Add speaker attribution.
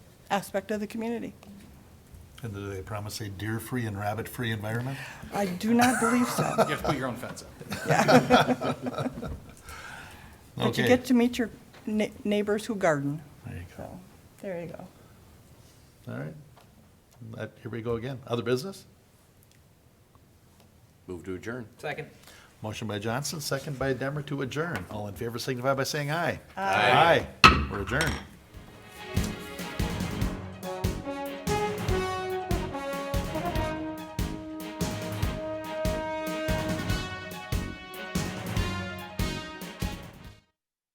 Speaker 1: aspect of the community.
Speaker 2: And do they promise a deer-free and rabbit-free environment?
Speaker 1: I do not believe so.
Speaker 3: You have to put your own fence up.
Speaker 1: But you
Speaker 2: Okay.
Speaker 1: get to meet your ne- neighbors who garden.
Speaker 2: There you go.
Speaker 1: So, there you go.
Speaker 2: All right. That- Here we go again. Other business?
Speaker 4: Move to adjourn.
Speaker 3: Second.
Speaker 2: Motion by Johnson, second by Demmer to adjourn. All in favor signify by saying aye.
Speaker 4: Aye.
Speaker 2: Aye. We're adjourned.